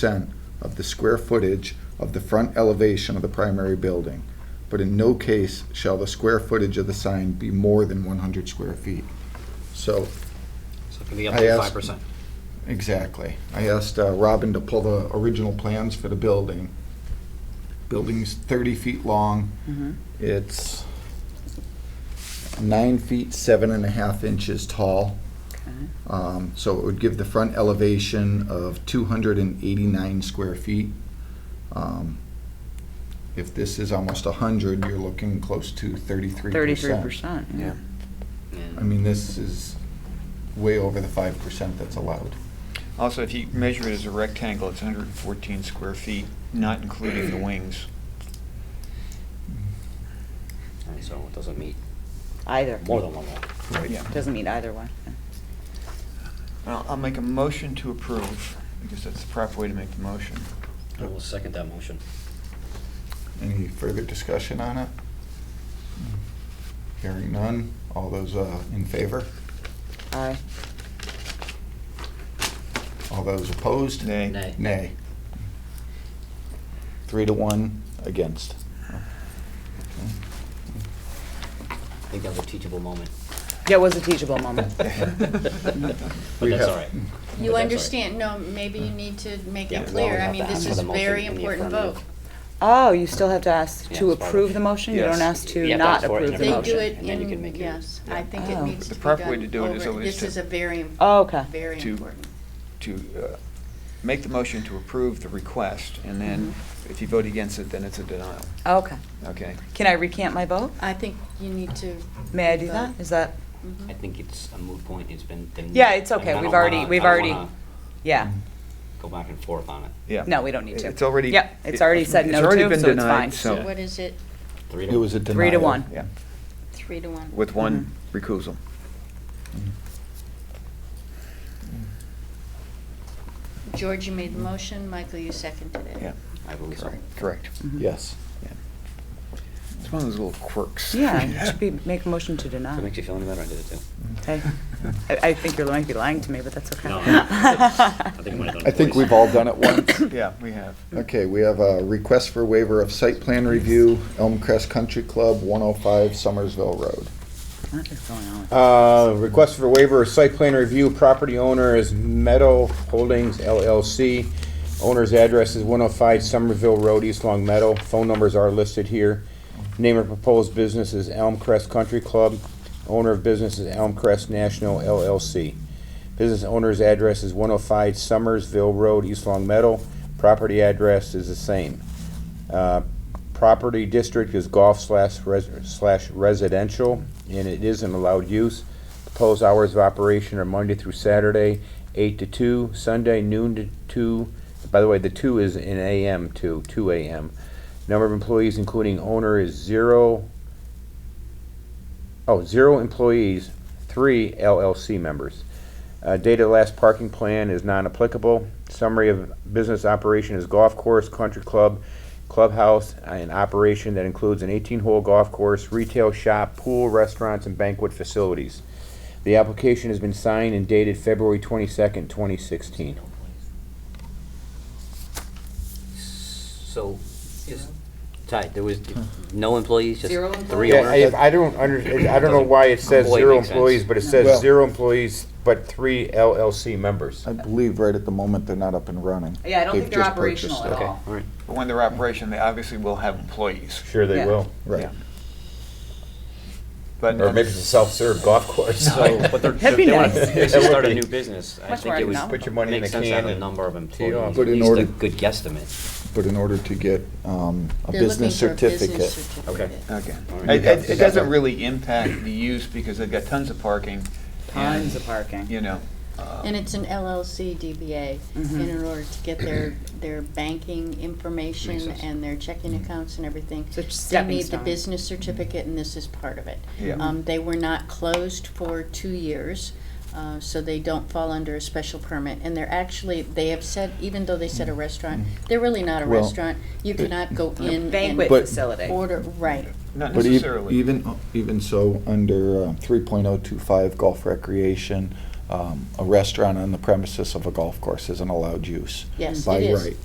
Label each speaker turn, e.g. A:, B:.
A: percent of the square footage of the front elevation of the primary building, but in no case shall the square footage of the sign be more than one hundred square feet. So,
B: So it can be up
A: I
B: to
A: asked-
B: five percent.
A: exactly. I asked uh, Robin to pull the original plans for the building. Building's thirty feet long.
C: Mm-hmm.
A: It's nine feet, seven and a half inches tall. Um, So it would give the front elevation of 289 square feet. Um, If this is almost 100, you're looking close to 33%.
C: Thirty-three percent, yeah.
A: I mean, this is way over the 5% that's allowed.
D: Also, if you measure it as a rectangle, it's 114 square feet, not including the wings.
B: And so it doesn't meet
C: Either.
B: more than one wall.
D: Yeah.
C: Doesn't mean either one.
D: I'll I'll make a motion to approve. I guess that's the proper way to make the motion.
B: I will second that motion.
A: Any further discussion on it? Hearing none. All those uh, in favor?
C: Aye.
A: All those opposed?
D: Nay.
B: Nay.
A: Nay. Three to one against.
B: I think that was a teachable moment.
C: Yeah, it was a teachable moment.
B: But
A: We
B: that's
A: have-
B: all right.
E: You
B: But that's all right.
E: understand, no, maybe you need to make
B: Yeah,
E: it
B: well, we
E: clear. I
B: have
E: mean,
B: to ask
E: this
B: for
E: is
B: the motion
E: very
B: in the
E: important
B: affirmative.
E: vote.
C: Oh, you still have to ask
B: Yeah,
C: to
B: it's part of
C: approve
B: it.
C: the motion? You don't
D: Yes.
C: ask
B: You
C: to
B: have to ask
C: not
B: for it in
C: approve
B: every
C: the
E: They do
C: motion?
E: it
B: and then you can
E: in,
B: make your-
E: yes, I think
C: Yeah.
E: it
C: Oh.
E: needs
D: The
E: to be
D: proper way to
E: done
D: do it is
E: over-
D: always
E: This
D: to-
E: is a very,
C: Oh, okay.
E: very
D: To-
E: important.
D: To uh, make the motion to approve the request, and then
C: Mm-hmm.
D: if you vote against it, then it's a denial,
C: Okay.
D: okay?
C: Can I recant my vote?
E: I think you need to.
C: May I do that? Is that,
E: Mhm.
B: I think it's a moot point. It's been. been-
C: Yeah, it's okay.
B: I mean, I
C: We've
B: don't
C: already-
B: wanna-
C: we've
B: I don't
C: already-
B: wanna
C: yeah.
B: Go back and forth on it.
D: Yeah.
C: No, we don't need to.
D: It's already.
C: Yep, it's already said no
D: already
C: to,
D: been
C: so it's
D: denied,
C: fine.
D: so-
E: So what is it?
B: Three to
A: It was a denial.
C: Three to one.
D: Yeah,
E: Three to one.
D: with one
C: Mm-hmm.
D: recusal.
E: George, you made the motion. Michael, you seconded it.
D: Yeah.
B: I believe so.
D: Correct. Correct.
B: Mm-hmm.
C: Mhm.
A: Yes.
D: It's one of those little quirks.
C: Yeah, you should be, make a motion to deny.
B: If it makes you feel any better, I did it too.
C: Hey, I, I think you might be lying to me, but that's okay.
B: No, I think I might have done it
A: I think
B: twice.
A: we've all done it once.
D: Yeah, we have.
A: Okay, we have a request for waiver of site plan review, Elm Crest Country Club, 105 Somersville Road.
C: What is going on?
F: Uh, Request for waiver of site plan review, property owner is Meadow Holdings LLC. Owner's address is 105 Somerville Road, East Long Meadow. Phone numbers are listed here. Name of proposed business is Elm Crest Country Club. Owner of business is Elm Crest National LLC. Business owner's address is 105 Somersville Road, East Long Meadow. Property address is the same. Uh, Property district is golf slash res- slash residential, and it is an allowed use. Proposed hours of operation are Monday through Saturday, eight to two, Sunday noon to two. By the way, the two is in AM to two AM. Number of employees, including owner, is zero. Oh, zero employees, three LLC members. Uh, date of last parking plan is non-applicable. Summary of business operation is golf course, country club, clubhouse, an operation that includes an 18-hole golf course, retail shop, pool, restaurants, and banquet facilities. The application has been signed and dated February 22nd, 2016.
B: So, is, Ty, there was no employees, just
C: Zero
B: three
C: employees.
F: Yeah,
B: owners?
F: I, I don't under, I don't know why it says
B: Doesn't-
F: zero
B: employee makes sense.
F: employees, but it
A: Well-
F: says zero employees, but three LLC members.
A: I believe right at the moment they're not up and running.
C: Yeah, I don't
A: They've
C: think they're
A: just
C: operational
A: purchased
C: at
A: it.
B: Okay,
C: all.
B: all right.
D: But when they're operation, they obviously will have employees.
F: Sure
C: Yeah.
F: they will.
A: Right.
D: But
F: Or maybe it's a self-serve golf course.
B: But they're,
C: That'd
B: if
C: be
B: they wanna
C: nice.
B: basically start a new business, I
C: Much
B: think
C: more
B: it was.
C: economical.
F: Put your money in
B: makes
F: the
B: sense to
F: can
B: have a
F: and
B: number of
F: tee
B: employees,
F: off.
B: at
A: But in
B: least
A: order-
B: a good guesstimate.
A: But in order to get um, a
E: They're looking
A: business
E: for a business
A: certificate.
B: Okay.
E: certificate.
D: Okay.
B: All right.
D: It, it- it doesn't really impact the use because they've got tons of parking.
C: Tons of
D: and,
C: parking.
D: You know,
E: And it's an LLC DBA,
A: Mm-hmm.
E: and in order to get their, their banking
B: Makes
E: information
B: sense.
E: and their checking
A: Mm-hmm.
E: accounts and everything,
C: So it's
E: they
C: stepping
E: need the
C: stone.
E: business certificate, and this is part of it.
D: Yeah.
E: Um, they were not closed for two years, uh, so they don't fall under a special permit, and they're actually, they have said, even though they said a restaurant, they're really not a
A: Mm-hmm. Well,
E: restaurant, you cannot go in and.
C: Banquet
A: But-
C: facility.
E: Order, right,
D: not
A: But e-
D: necessarily.
A: oh even, even so, under uh, 3.025 golf recreation, uh, um, a restaurant on the premises of a golf course is an allowed use.
E: Yes,
A: by
E: it is.
A: right.